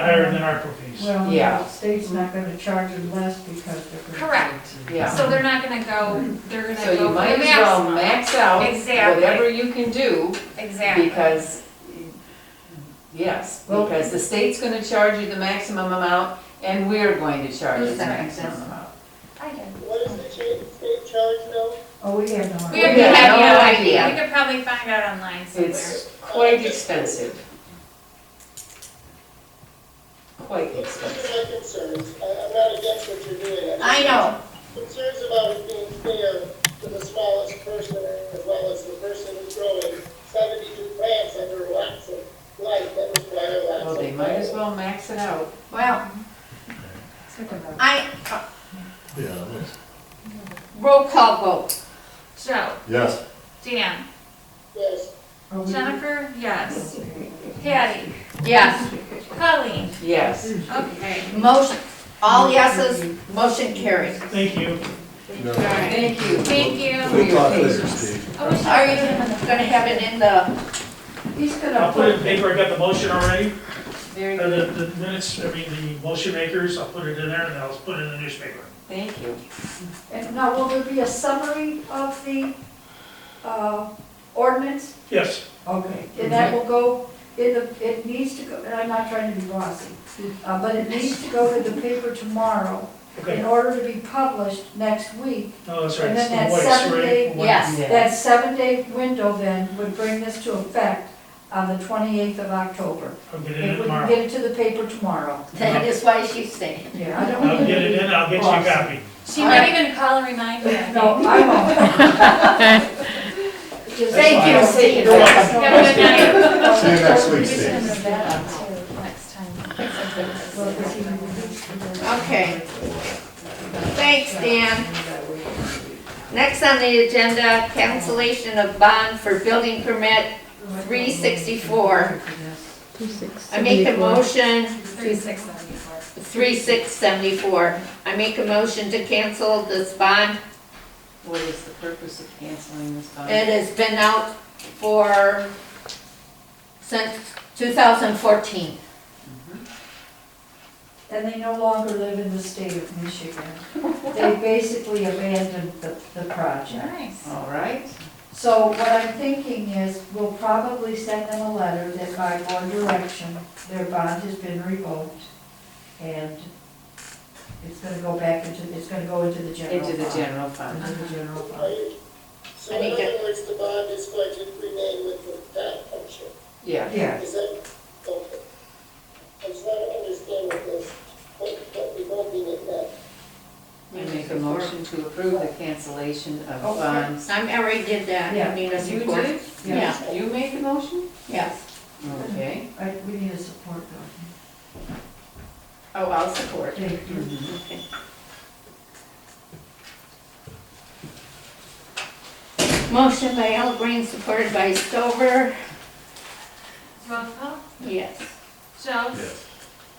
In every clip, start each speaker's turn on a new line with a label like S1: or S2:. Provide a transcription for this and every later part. S1: higher than ARPA fees.
S2: Well,
S3: Yeah.
S2: the state's not gonna charge them less because they're. gonna-
S4: Correct,
S3: Yeah,
S4: so they're not gonna go, they're gonna
S3: so
S4: go
S3: you
S4: for
S3: might
S4: the
S3: as well
S4: maximum.
S3: max out
S4: Exactly.
S3: whatever you can do,
S4: Exactly.
S3: because, yes, because the state's gonna charge you the maximum amount, and we're going to charge you the
S5: Who's that?
S3: maximum amount.
S4: I did.
S6: What is the state, state charge though?
S2: Oh, we have no.
S4: We
S3: have
S4: have,
S3: no
S4: we
S3: idea.
S4: We could probably find out online somewhere.
S3: It's quite expensive. Quite
S6: These
S3: expensive.
S6: are my concerns. I, I'm not against what you're doing.
S5: I know,
S6: Concerns about it being fair to the smallest person as well as the person who's growing seventy-two plants under lots of light that require lots of.
S3: Well, they might as well max it out.
S5: well, I, uh,
S7: Yeah.
S5: roll call vote.
S4: Joe,
S7: Yes.
S4: Dan,
S6: Yes,
S2: Are Oh, we-
S4: Jennifer, yes. Patty,
S5: Yes.
S4: Colleen,
S3: Yes,
S4: okay.
S5: Motion, all yeses, motion carried.
S1: Thank you.
S3: thank you.
S4: Thank you.
S7: We'll talk later, Steve.
S4: I wish
S5: Are
S4: I
S5: you
S4: could-
S5: gonna have it in the,
S3: He's
S1: I'll
S3: gonna
S1: put it in
S3: put,
S1: paper, I got the motion already,
S3: very
S1: or
S3: good,
S1: the, the minutes, I mean, the motion makers, I'll put it in there, and I'll put it in the newspaper.
S3: thank you.
S2: And now, will there be a summary of the, uh, ordinance?
S1: Yes,
S2: Okay, and that will go, in the. it needs to go, and I'm not trying to be bossy, uh, but it needs to go to the paper tomorrow in
S1: okay,
S2: order to be published next week.
S1: no, that's right,
S2: And
S1: it's
S2: then
S1: the
S2: that
S1: voice,
S2: seven
S1: right?
S2: day-
S1: Voice.
S5: yes,
S3: Yeah.
S2: That seven-day window then would bring this to effect on the 28th of October.
S1: I'll get it in
S2: If we can
S1: tomorrow,
S2: get it to the paper tomorrow.
S5: that is why she's saying.
S2: Yeah, I don't.
S1: I'll get it in, I'll get you a copy.
S4: She might even call and remind me. I
S2: No,
S4: think.
S2: I won't. Just-
S5: Thank you, see you.
S1: You're welcome.
S4: Have a good night.
S7: See you next week, Steve.
S4: Next
S2: Well, if you
S4: time.
S2: reduce the-
S5: Okay. Thanks, Dan. Next on the agenda, cancellation of bond for building permit 364. I make a motion
S4: Three six seventy-four.
S5: 3674. I make a motion to cancel this bond.
S3: What is the purpose of canceling this bond?
S5: It has been out for, since 2014.
S2: And they no longer live in the state of Michigan. They basically abandoned the, the project.
S4: Nice.
S3: All right,
S2: So what I'm thinking is, we'll probably send them a letter that by board direction, their bond has been revoked, and it's gonna go back into, it's gonna go into the general
S3: into
S2: fund.
S3: the general fund.
S2: Into the general fund.
S6: are you, so
S5: I
S6: in
S5: think
S6: other words, the bond is going to remain with the town function.
S3: Yeah,
S2: Yeah,
S6: Is that, okay. I just want to understand what this, what, what we're voting it at.
S3: I make a motion to approve the cancellation of
S2: Okay.
S3: bonds.
S5: I already Oh, did that. I
S2: Yeah.
S5: mean, it's
S3: You
S5: important.
S3: did?
S5: Yeah.
S3: You made the motion?
S5: Yes.
S3: Okay.
S2: I, we need a support though.
S5: Oh, I'll support.
S2: Thank you.
S3: Mm-hmm.
S5: Okay. Motion by Al Green, supported by Stover.
S4: Roll call.
S5: Yes.
S4: Joe,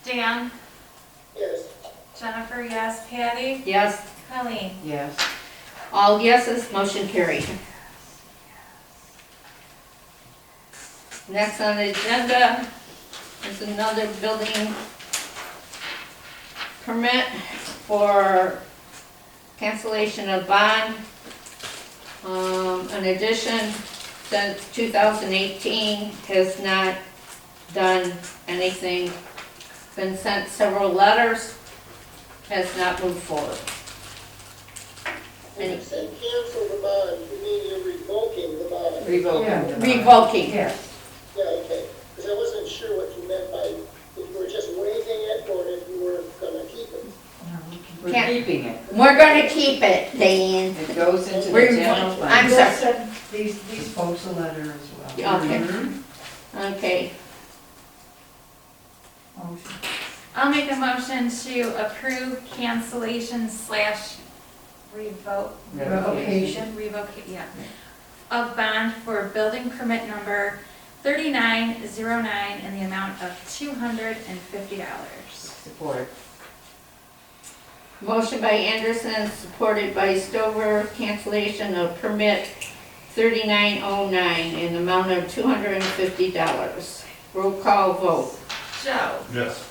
S4: Dan,
S6: Yes.
S4: Jennifer, yes. Patty,
S5: Yes.
S4: Colleen.
S3: Yes.
S5: All yeses, motion carried. Next on the agenda is another building permit for cancellation of bond. Um, an addition since two thousand eighteen has not done anything. Been sent several letters, has not moved forward.
S6: When you say cancel the bond, you mean you're revoking the bond?
S3: Revoking the bond.
S5: Revoking.
S2: Yes,
S6: Yeah, okay, because I wasn't sure what you meant by, if you were just waiving it or if you were gonna keep it.
S2: no, we can-
S3: We're
S5: Can't-
S3: keeping it.
S5: We're gonna keep it, Dan.
S3: It goes into the
S5: We're-
S3: general
S5: I'm
S3: fund.
S2: We'll
S5: sorry.
S2: send these, these folks a letter as well.
S5: Yeah. okay.
S3: Mhm.
S5: Okay,
S2: Motion.
S4: I'll make a motion to approve cancellation slash revoke,
S2: Revocation.
S4: revoke, yeah, of bond for building permit number thirty-nine zero nine in the amount of two hundred and fifty dollars.
S3: Support.
S5: motion by Anderson, supported by Stover, cancellation of permit thirty-nine oh nine in the amount of two hundred and fifty dollars. Roll call vote.
S4: Joe,
S7: Yes.